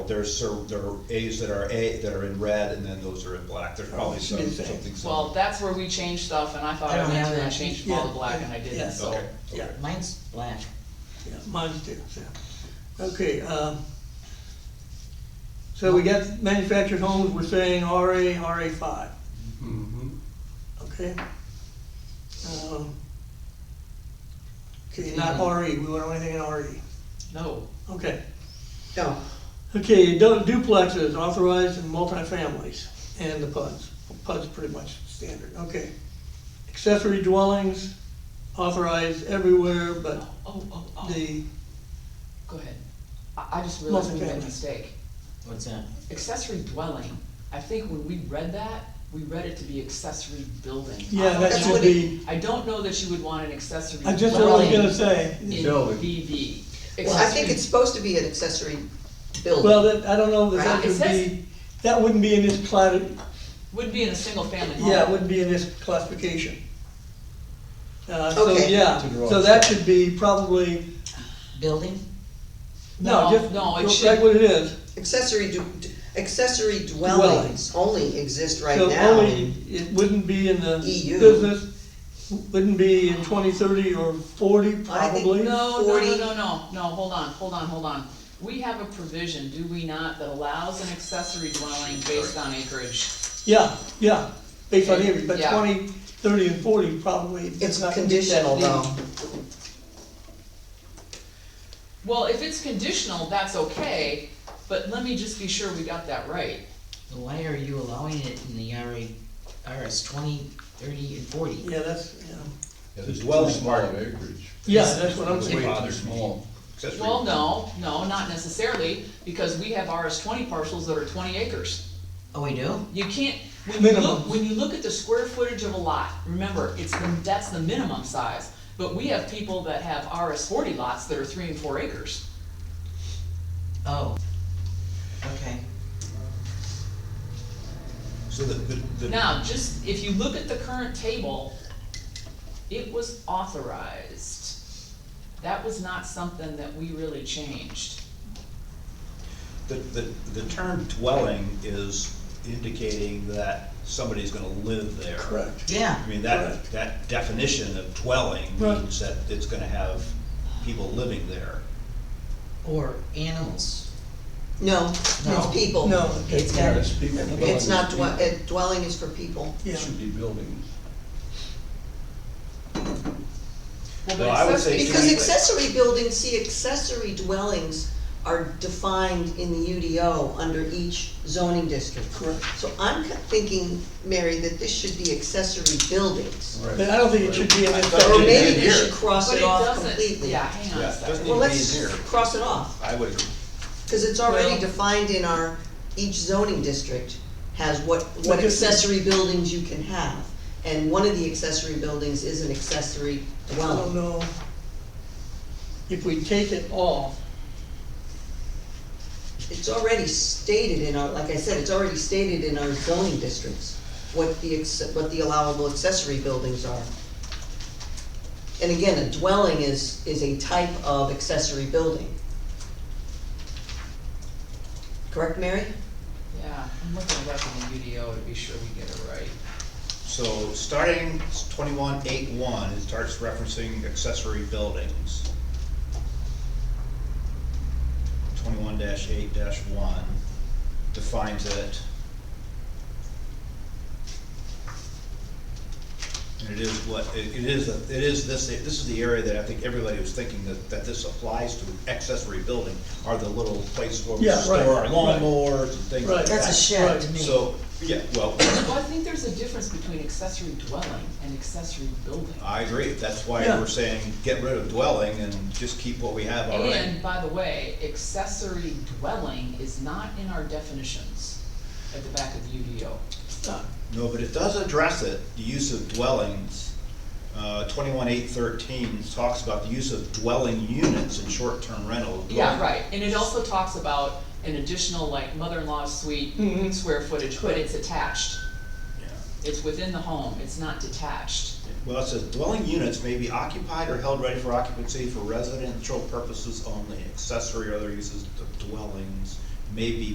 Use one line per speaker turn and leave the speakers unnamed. There's, cer- there are As that are A, that are in red, and then those are in black, there's probably some,
Okay.
something
Well,
similar.
that's where we changed stuff, and I thought
I
I
don't
was
have
gonna
that.
change them all to
Yeah,
black,
yeah,
and I
yeah.
didn't, so.
Okay,
Yeah,
okay.
Mine's black.
yeah, mine too, so. Okay, um, so we got manufactured homes, we're saying RA, RA five,
Mhm.
okay? Um, Okay, not RE, we don't want anything in E. RE,
No,
okay.
No,
Okay, du- duplexes authorized in multifamilies and the PUDs. PUD's pretty much standard, okay. Accessory dwellings authorized everywhere but
oh, oh, oh,
the,
go ahead. I, I just realized we made a
Multifamily.
mistake.
what's that?
Accessory dwelling, I think when we read that, we read it to be accessory building. I
Yeah,
don't
that
know
should
that-
be-
I don't know that you would want an accessory
I just, I was
dwelling
gonna
in
say,
Building.
BB.
Well, I think
Accessory-
it's supposed to be an accessory building.
well, that, I don't know that that
Right, it
could
says-
be, that wouldn't be in this clat,
Would be in a single family home.
yeah, it wouldn't be in this classification. Uh, so,
Okay.
yeah,
To the
so
wrong
that should be probably,
Building?
no,
No,
just,
no, it
just
should-
like what it is.
Accessory, du- d- accessory dwellings only exist right
So
now. E
only, it wouldn't be in the
EU.
business, wouldn't be in twenty, thirty, or forty,
I think-
probably.
No, no,
40.
no, no, no, no, hold on, hold on, hold on. We have a provision, do we not, that allows an accessory dwelling based on acreage?
Yeah, yeah, based on every, but
Yeah.
twenty, thirty, and forty probably. does
It's
not meet that
conditional
need.
though.
Well, if it's conditional, that's okay, but let me just be sure we got that right.
Why are you allowing it in the E RA, RS twenty, thirty, and forty?
Yeah, that's, yeah,
Yeah,
It's
there's
well
dwelling
small
part,
acreage.
yeah, that's what I'm
It's
saying.
way too
Bothers me.
small.
accessory.
Well, no, no, not necessarily, because we have RS twenty parcels that are twenty acres.
Oh, we do?
You can't, when you
Minimum.
look, when you look at the square footage of a lot, remember, it's the, that's the minimum size. But we have people that have RS forty lots that are three and four acres.
Oh. Okay.
So the, the, the,
Now, just, if you look at the current table, it was authorized. That was not something that we really changed.
the, the- the term dwelling is indicating that somebody's gonna live there.
Correct.
Yeah.
I mean, that,
Correct.
that definition of dwelling
Right.
means that it's gonna have people living there.
Or animals.
No,
No.
it's people.
No.
It's
Yeah,
got,
it's people.
It's not dwe-
Dwelling.
uh, dwelling is for people.
Yeah,
It should be buildings.
Well,
Well, I would
but
say
accessory-
Because
Exactly.
accessory buildings, see accessory dwellings are defined in the UDO under each zoning district.
correct.
So I'm thinking, Mary, that this should be accessory buildings.
But I don't think it should be in
I
the
thought
Or
it
subject.
maybe we
here.
should cross
but
it
it
off
doesn't-
completely.
Yeah, hang on
Yeah,
a
it
second.
doesn't
Well,
Need to
let's
be here.
cross it off,
I would agree.
cause it's already
Well-
defined in our, each zoning district has what, what
But this-
accessory buildings you can have. And one of the accessory buildings is an accessory
I don't
dwelling.
know. If we take it off,
It's already stated in our, like I said, it's already stated in our zoning districts, what the, acce- what the allowable accessory buildings are. And again, a dwelling is, is a type of accessory building. Correct, Mary?
Yeah, I'm looking it up in the UDO to be sure we get it right.
So starting twenty-one eight one, it starts referencing accessory buildings. Twenty-one dash eight dash one defines it. And it is what, it it is, a- it is this, this is the area that I think everybody was thinking that, that this applies to accessory building, are the little places where we
Yeah,
store
right,
our
right.
lawnmowers and things
Right.
like that.
that's a
Right.
shed to me.
So, yeah, well,
Well, I think there's a difference between accessory dwelling and accessory building.
I agree, that's why
Yeah.
we're saying get rid of dwelling and just keep what we have already.
And by the way, accessory dwelling is not in our definitions at the back of the UDO.
uh,
No, but it does address it, the use of dwellings. Uh, twenty-one eight thirteen talks about the use of dwelling units in short-term rental.
Yeah,
dwelling.
right, and it also talks about an additional like mother-in-law suite
Mm-hmm.
Mhm.
square footage, but
Correct.
it's attached.
Yeah.
It's within the home, it's not detached.
Well, it says dwelling units may be occupied or held ready for occupancy for residential purposes only. Accessory or other uses of dwellings may be